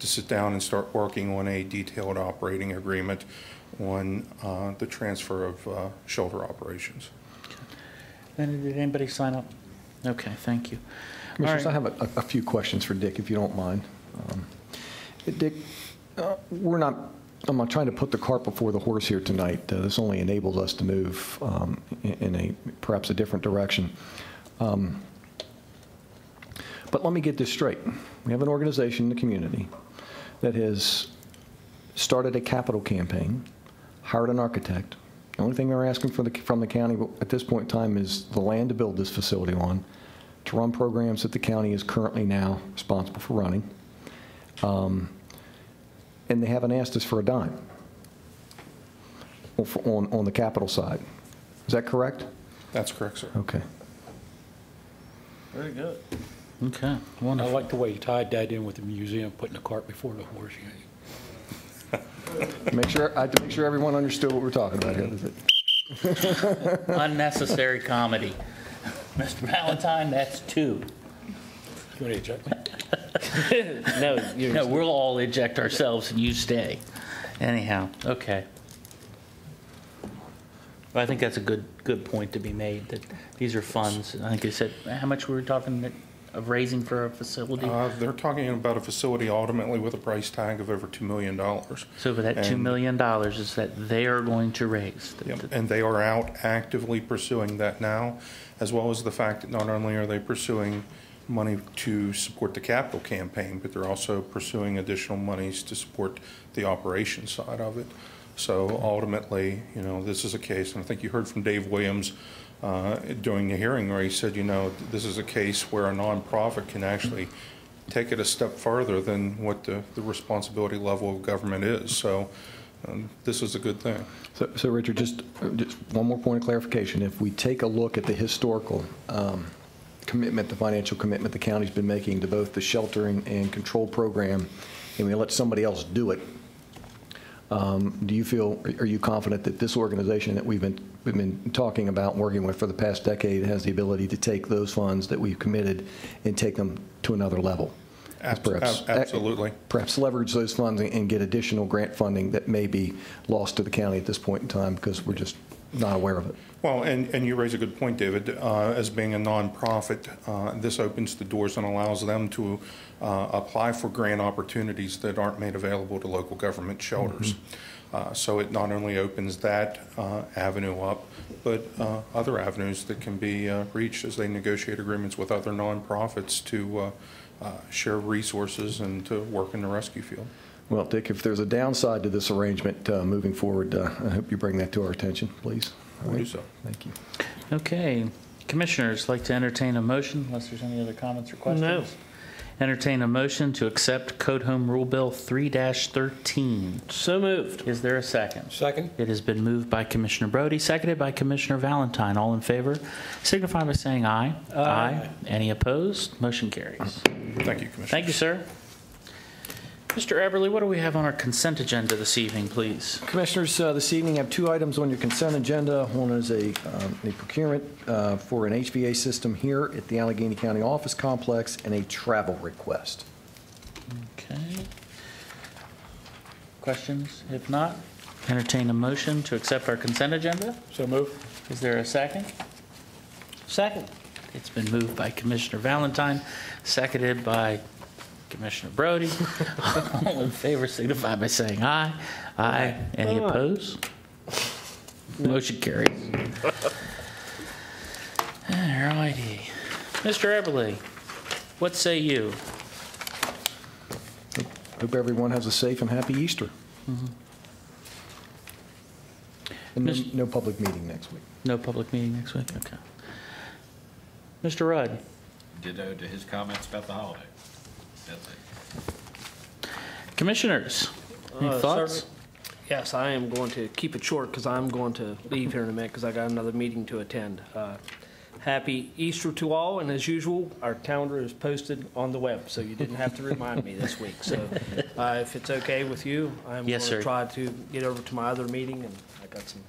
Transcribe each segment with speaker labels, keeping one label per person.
Speaker 1: to sit down and start working on a detailed operating agreement on uh, the transfer of uh, shelter operations.
Speaker 2: And did anybody sign up? Okay, thank you. All
Speaker 3: Commissioners, I
Speaker 2: right.
Speaker 3: have a a few questions for Dick, if you don't mind. Um, Dick, uh, we're not, I'm not trying to put the cart before the horse here tonight. Uh, This only enables us to move um, in in a, perhaps a different direction. Um, But let me get this straight. We have an organization in the community that has started a capital campaign, hired an architect. The only thing they're asking for the, from the county at this point in time is the land to build this facility on, to run programs that the county is currently now responsible for running. Um, And they haven't asked us for a dime on- for- on, on the capital side. Is that correct?
Speaker 1: That's correct, sir.
Speaker 3: Okay.
Speaker 4: Very good.
Speaker 2: Okay,
Speaker 5: I
Speaker 2: wonderful.
Speaker 5: like the way you tied that in with the museum, putting the cart before the horse. you know.
Speaker 3: Make sure, I had to make sure everyone understood what we're talking about here.
Speaker 2: Unnecessary comedy. Mr. Valentine, that's two.
Speaker 5: You want to eject me?
Speaker 2: No, No, we'll all eject ourselves and you stay. Anyhow, okay. But I think that's a good, good point to be made, that these are funds. I think you said, how much we were talking that- of raising for a facility?
Speaker 1: Uh, They're talking about a facility ultimately with a price tag of over $2 million.
Speaker 2: So for that $2
Speaker 1: and-
Speaker 2: million is that they are going to raise. that-
Speaker 1: Yep,
Speaker 2: that-
Speaker 1: And they are out actively pursuing that now, as well as the fact that not only are they pursuing money to support the capital campaign, but they're also pursuing additional monies to support the operation side of it. So ultimately, you know, this is a case, and I think you heard from Dave Williams uh, during the hearing where he said, you know, this is a case where a nonprofit can actually take it a step farther than what the the responsibility level of government is. So um, this is a good thing.
Speaker 3: So, so Richard, just, just one more point of clarification. If we take a look at the historical um, commitment, the financial commitment the county's been making to both the sheltering and control program, and we let somebody else do it, um, do you feel, are you confident that this organization that we've been, we've been talking about, and working with for the past decade, has the ability to take those funds that we've committed and take them to another level?
Speaker 1: Abs-
Speaker 3: Perhaps-
Speaker 1: ab- absolutely.
Speaker 3: Perhaps leverage those funds and- and get additional grant funding that may be lost to the county at this point in time because we're just not aware of it.
Speaker 1: Well, and, and you raise a good point, David. Uh, As being a nonprofit, uh, this opens the doors and allows them to uh, apply for grant opportunities that aren't made available to local government shelters. Uh, So it not only opens that uh, avenue up, but uh, other avenues that can be uh, reached as they negotiate agreements with other nonprofits to uh, uh, share resources and to work in the rescue field.
Speaker 3: Well, Dick, if there's a downside to this arrangement uh, moving forward, uh, I hope you bring that to our attention, please. All
Speaker 1: Will do
Speaker 3: right.
Speaker 1: so.
Speaker 3: Thank you.
Speaker 2: Okay, commissioners, like to entertain a motion, unless there's any other comments or questions?
Speaker 4: No.
Speaker 2: Entertain a motion to accept Code Home Rule Bill 3-13.
Speaker 4: So moved.
Speaker 2: Is there a second?
Speaker 5: Second?
Speaker 2: It has been moved by Commissioner Brody, seconded by Commissioner Valentine. All in favor signify by saying aye. Aye. Any opposed? Motion carries.
Speaker 1: Thank you, Commissioner.
Speaker 2: Thank you, sir. Mr. Eberly, what do we have on our consent agenda this evening, please?
Speaker 3: Commissioners, uh, this evening, I have two items on your consent agenda. One is a um, a procurement uh, for an HVA system here at the Allegheny County Office Complex and a travel request.
Speaker 2: Okay. Questions? If not, entertain a motion to accept our consent agenda.
Speaker 5: So moved?
Speaker 2: Is there a second?
Speaker 4: Second.
Speaker 2: It's been moved by Commissioner Valentine, seconded by Commissioner Brody. All in favor signify by saying aye. Aye. Any
Speaker 4: Aye.
Speaker 2: opposed? Motion carries. All righty. Mr. Eberly, what say you?
Speaker 3: Hope everyone has a safe and happy Easter. And no-
Speaker 2: Mis-
Speaker 3: no public meeting next week.
Speaker 2: No public meeting next week? Okay. Mr. Rudd?
Speaker 6: ditto to his comments about the holiday. That's it.
Speaker 2: Commissioners? Any
Speaker 4: Uh,
Speaker 2: thoughts?
Speaker 4: Yes, I am going to keep it short because I'm going to leave here in a minute because I got another meeting to attend. Uh, Happy Easter to all, and as usual, our calendar is posted on the web, so you didn't have to remind me this week. So uh, if it's okay with you, I'm going
Speaker 2: Yes,
Speaker 4: to
Speaker 2: sir.
Speaker 4: try to get over to my other meeting, and I got some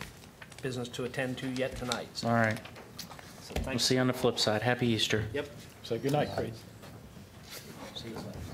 Speaker 4: business to attend to yet tonight. So
Speaker 2: All right. We'll
Speaker 4: thanks.
Speaker 2: see you on the flip side. Happy Easter.
Speaker 4: Yep.
Speaker 5: Say goodnight, Chris.
Speaker 4: See you later.